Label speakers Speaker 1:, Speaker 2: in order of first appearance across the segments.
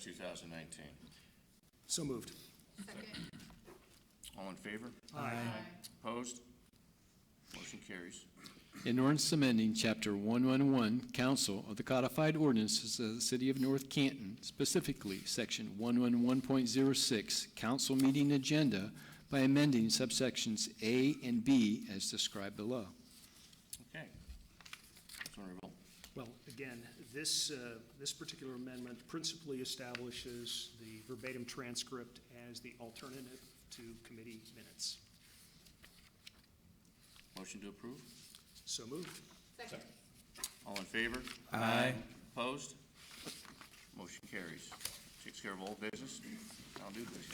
Speaker 1: two thousand nineteen.
Speaker 2: So moved.
Speaker 3: Second.
Speaker 1: All in favor?
Speaker 2: Aye.
Speaker 1: Opposed? Motion carries.
Speaker 4: An ordinance amending Chapter 111, Council of the Codified Ordinances of the City of North Canton, specifically Section 111.06, Council Meeting Agenda, by amending subsections A and B as described below.
Speaker 1: Okay. Councilman Revolt.
Speaker 2: Well, again, this, uh, this particular amendment principally establishes the verbatim transcript as the alternative to committee minutes.
Speaker 1: Motion to approve?
Speaker 2: So moved.
Speaker 3: Second.
Speaker 1: All in favor? Aye. Opposed? Motion carries. Takes care of old business, now new business.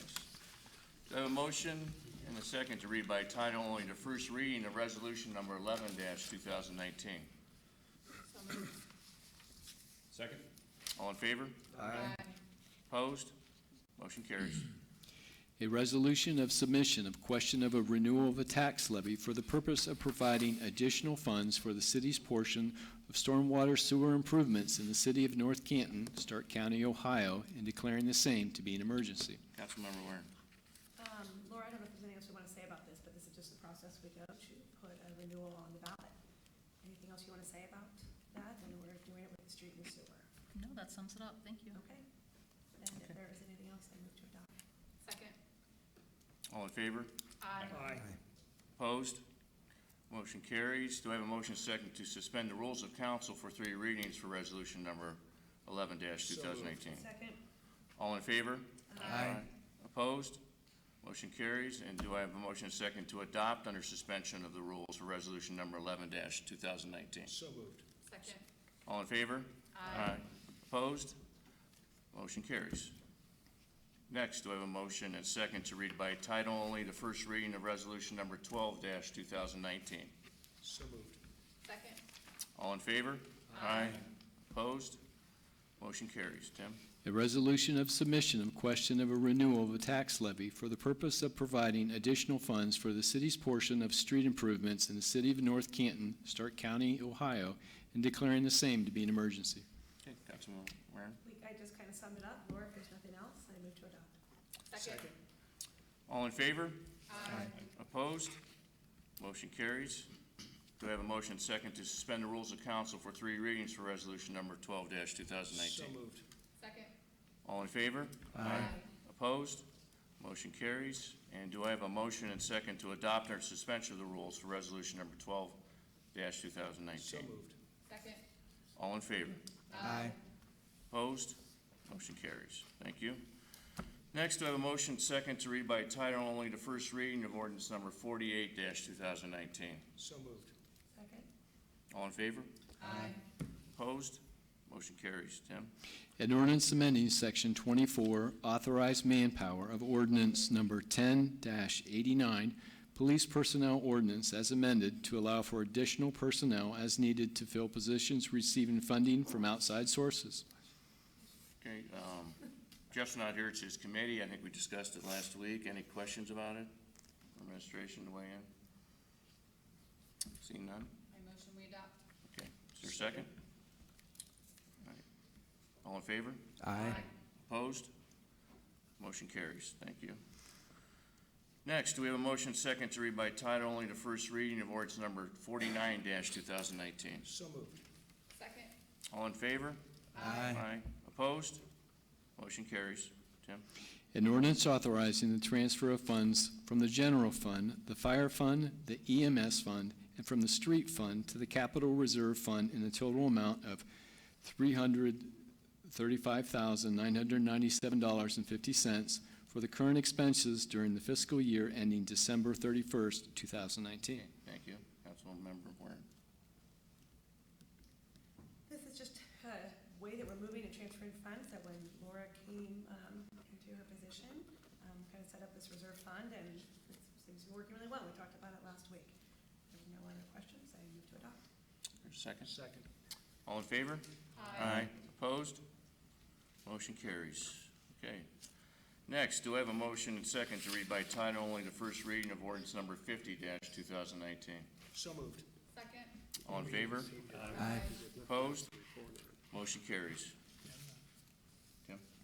Speaker 1: Do I have a motion and a second to read by title only the first reading of resolution number eleven two thousand nineteen?
Speaker 3: So moved.
Speaker 5: Second?
Speaker 1: All in favor?
Speaker 3: Aye.
Speaker 1: Opposed? Motion carries.
Speaker 4: A resolution of submission of question of a renewal of a tax levy for the purpose of providing additional funds for the city's portion of stormwater sewer improvements in the city of North Canton, Stark County, Ohio, and declaring the same to be an emergency.
Speaker 1: Councilmember Warren.
Speaker 6: Um, Laura, I don't know if there's anything else you want to say about this, but this is just the process we go to put a renewal on the ballot. Anything else you want to say about that? And we're doing it with the street and sewer.
Speaker 7: No, that sums it up, thank you.
Speaker 6: Okay? And if there is anything else, I move to adopt.
Speaker 3: Second.
Speaker 1: All in favor?
Speaker 3: Aye.
Speaker 2: Aye.
Speaker 1: Opposed? Motion carries. Do I have a motion second to suspend the rules of council for three readings for resolution number eleven two thousand eighteen?
Speaker 6: Second.
Speaker 1: All in favor? Opposed? Motion carries. And do I have a motion second to adopt under suspension of the rules for resolution number eleven two thousand nineteen?
Speaker 2: So moved.
Speaker 3: Second.
Speaker 1: All in favor?
Speaker 3: Aye.
Speaker 1: Opposed? Motion carries. Next, do I have a motion and second to read by title only the first reading of resolution number twelve two thousand nineteen?
Speaker 2: So moved.
Speaker 3: Second.
Speaker 1: All in favor? Aye. Opposed? Motion carries. Tim?
Speaker 4: A resolution of submission of question of a renewal of a tax levy for the purpose of providing additional funds for the city's portion of street improvements in the city of North Canton, Stark County, Ohio, and declaring the same to be an emergency.
Speaker 1: Okay, Councilman Warren.
Speaker 6: We, I just kind of summed it up. Laura, if there's nothing else, I move to adopt.
Speaker 3: Second.
Speaker 1: All in favor?
Speaker 3: Aye.
Speaker 1: Opposed? Motion carries. Do I have a motion second to suspend the rules of council for three readings for resolution number twelve two thousand
Speaker 2: So
Speaker 1: nineteen?
Speaker 2: moved.
Speaker 3: Second.
Speaker 1: All in favor?
Speaker 3: Aye.
Speaker 1: Opposed? Motion carries. And do I have a motion and second to adopt under suspension of the rules for resolution number twelve two thousand
Speaker 2: So
Speaker 1: nineteen?
Speaker 2: moved.
Speaker 3: Second.
Speaker 1: All in favor?
Speaker 3: Aye.
Speaker 1: Opposed? Motion carries. Thank you. Next, do I have a motion second to read by title only the first reading of ordinance number forty-eight two thousand nineteen?
Speaker 2: So moved.
Speaker 6: Second.
Speaker 1: All in favor?
Speaker 3: Aye.
Speaker 1: Opposed? Motion carries. Tim?
Speaker 4: An ordinance amending Section 24, authorized manpower of ordinance number 10-89, Police Personnel Ordinance as amended to allow for additional personnel as needed to fill positions receiving funding from outside sources.
Speaker 1: Okay, um, Jeff's not here, it's his committee, I think we discussed it last week, any questions about it? Administration to weigh in? Seeing none?
Speaker 3: I motion we adopt.
Speaker 1: Okay, is there a second? All right. All in favor?
Speaker 3: Aye.
Speaker 1: Opposed? Motion carries. Thank you. Next, we have a motion second to read by title only the first reading of ordinance number forty-nine two thousand nineteen.
Speaker 2: So moved.
Speaker 3: Second.
Speaker 1: All in favor? Aye. Opposed? Motion carries. Tim?
Speaker 4: An ordinance authorizing the transfer of funds from the general fund, the fire fund, the EMS fund, and from the street fund to the capital reserve fund in a total amount of three hundred thirty-five thousand nine hundred ninety-seven dollars and fifty cents for the current expenses during the fiscal year ending December thirty-first, two thousand nineteen.
Speaker 1: Okay, Thank you. Councilmember Warren.
Speaker 6: This is just a way that we're moving and transferring funds, that when Laura came um, into her position, um, kind of set up this reserve fund, and it seems to be working really well. We talked about it last week. If there are no other questions, I move to adopt.
Speaker 1: There's a second.
Speaker 2: Second.
Speaker 1: All in favor?
Speaker 3: Aye.
Speaker 1: Opposed? Motion carries. Okay. Next, do I have a motion and second to read by title only the first reading of ordinance number fifty two thousand nineteen?
Speaker 2: So moved.
Speaker 3: Second.
Speaker 1: All in favor?
Speaker 2: Aye.
Speaker 1: Opposed? Motion carries.